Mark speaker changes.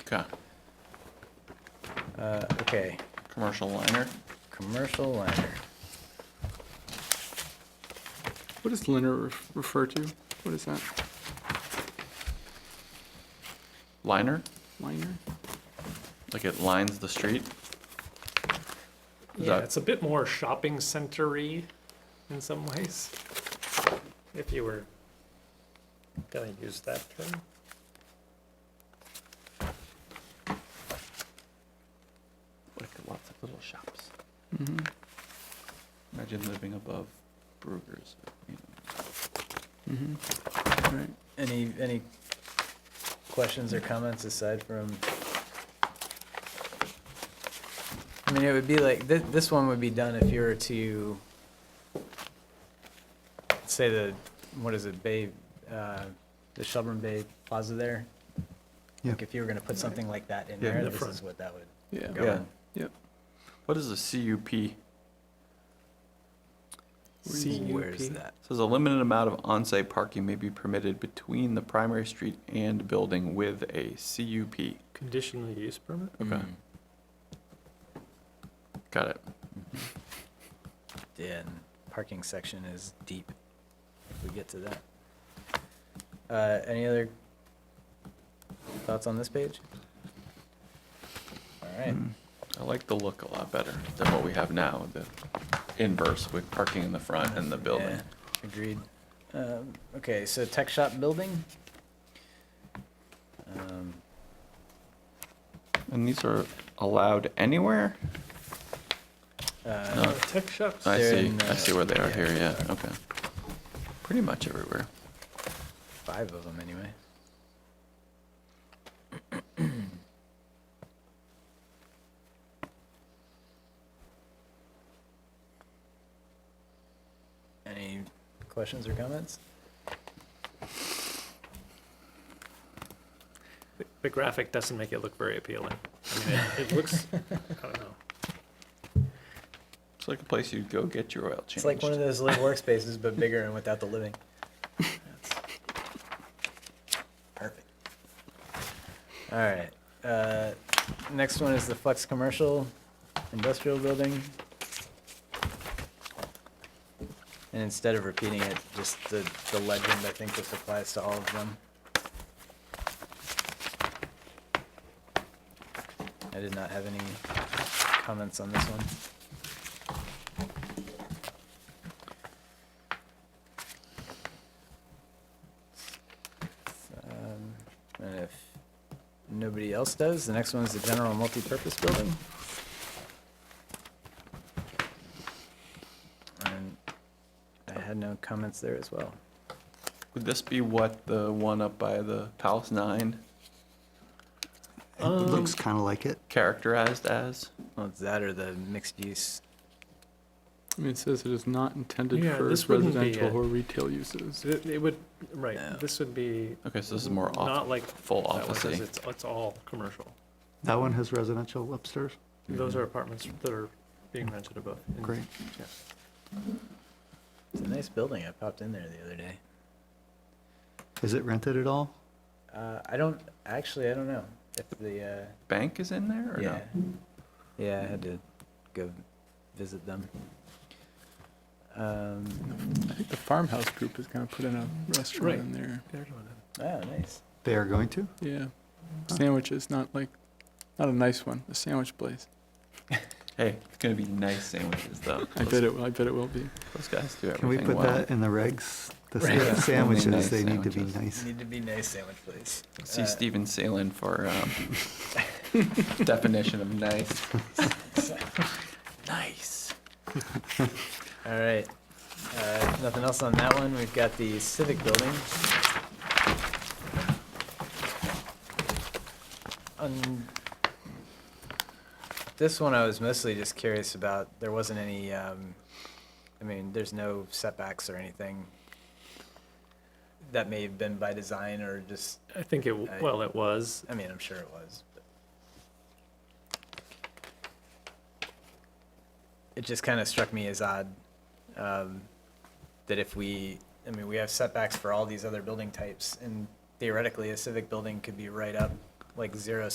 Speaker 1: Okay,
Speaker 2: Uh, okay,
Speaker 1: commercial liner.
Speaker 2: commercial liner.
Speaker 3: What does liner ref- refer to? What is that?
Speaker 1: Liner,
Speaker 3: Liner?
Speaker 1: like it lines the street. Is
Speaker 4: Yeah,
Speaker 1: that-
Speaker 4: it's a bit more shopping centery in some ways. If you were gonna use that term.
Speaker 1: Like lots of little shops.
Speaker 3: Mm-hmm,
Speaker 1: Imagine living above Brugger's. you know.
Speaker 3: Right.
Speaker 2: Any, any questions or comments aside from? I mean, it would be like, this, this one would be done if you were to, say the, what is it, Bay, uh, the Shelburne Bay Plaza there?
Speaker 3: Yeah.
Speaker 2: Like if you were gonna put something like that in
Speaker 1: Yeah.
Speaker 2: there,
Speaker 4: The
Speaker 2: this
Speaker 4: front.
Speaker 2: is what that would
Speaker 3: Yeah.
Speaker 2: go
Speaker 1: Yeah.
Speaker 2: in.
Speaker 1: What is a CUP?
Speaker 2: Where is that?
Speaker 1: Says a limited amount of on-site parking may be permitted between the primary street and building with a CUP.
Speaker 4: Conditional use permit?
Speaker 2: Mm.
Speaker 1: Okay. Got it.
Speaker 2: Yeah, and parking section is deep. If we get to that. Uh, any other thoughts on this page? All right,
Speaker 1: I like the look a lot better than what we have now, the inverse with parking in the front and the building.
Speaker 2: yeah, agreed. Um, okay, so tech shop building. Um,
Speaker 1: And these are allowed anywhere?
Speaker 2: uh,
Speaker 1: No.
Speaker 4: Uh, Tech shops,
Speaker 1: I
Speaker 2: They're
Speaker 1: see,
Speaker 2: in,
Speaker 1: I see where they are
Speaker 2: uh,
Speaker 1: here, yeah,
Speaker 2: yeah.
Speaker 1: okay. Pretty much everywhere.
Speaker 2: five of them anyway. Any questions or comments?
Speaker 4: the- the graphic doesn't make it look very appealing. I mean, it, it looks, I don't know.
Speaker 1: It's like a place you'd go get your oil changed.
Speaker 2: It's like one of those little workspaces, but bigger and without the living. Perfect. All right. Uh, next one is the flex commercial industrial building. And instead of repeating it, just the, the legend, I think this applies to all of them. I did not have any comments on this one. Um, And if nobody else does, the next one is the general multipurpose building. And I had no comments there as well.
Speaker 1: Would this be what, the one up by the Palace Nine
Speaker 3: It looks kind of like it.
Speaker 1: characterized as?
Speaker 2: Well, it's that or the mixed use.
Speaker 3: I mean, it says it is not intended
Speaker 4: Yeah,
Speaker 3: for
Speaker 4: this wouldn't be
Speaker 3: residential
Speaker 4: it.
Speaker 3: or retail uses.
Speaker 4: So It, it would, right,
Speaker 2: No.
Speaker 4: this would be.
Speaker 1: Okay, so this is more
Speaker 4: Not
Speaker 1: off,
Speaker 4: like
Speaker 1: full
Speaker 4: that one, because
Speaker 1: office-y. Mm-hmm.
Speaker 4: it's, it's all commercial.
Speaker 5: That one has residential upstairs?
Speaker 4: Those are apartments that are being rented above. and-
Speaker 5: Great.
Speaker 2: It's a nice building. I popped in there the other day.
Speaker 5: Is it rented at all?
Speaker 2: Uh, I don't, actually, I don't know if the,
Speaker 1: Bank is in there
Speaker 2: uh,
Speaker 1: or
Speaker 2: yeah.
Speaker 1: no?
Speaker 2: Yeah, I had to go visit them. Um,
Speaker 3: I think the farmhouse group is going to put in a restaurant
Speaker 4: Right.
Speaker 3: in there.
Speaker 4: They're doing it.
Speaker 2: oh, nice.
Speaker 5: They are going to?
Speaker 3: Yeah. Sandwiches, not like, not a nice one, a sandwich place.
Speaker 1: Hey, it's gonna be nice sandwiches though.
Speaker 3: I bet it, I bet it will be.
Speaker 1: Those guys do
Speaker 5: Can we
Speaker 1: everything
Speaker 5: put
Speaker 1: well.
Speaker 5: that in the regs? The
Speaker 2: Right.
Speaker 5: sa-
Speaker 1: Nice
Speaker 5: sandwiches, they need to be
Speaker 1: sandwiches.
Speaker 5: nice.
Speaker 2: Need to be nice sandwich place.
Speaker 1: See
Speaker 2: Uh,
Speaker 1: Steven Salen for, um, definition of nice. Nice.
Speaker 2: All right. Uh, Nothing else on that one. We've got the civic building. On this one, I was mostly just curious about, there wasn't any, um, I mean, there's no setbacks or anything that may have been by design or just,
Speaker 4: I think it, w-
Speaker 2: I-
Speaker 4: well, it was,
Speaker 2: I mean, I'm sure it was. but- It just kind of struck me as odd um, that if we, I mean, we have setbacks for all these other building types, and theoretically, a civic building could be right up, like zero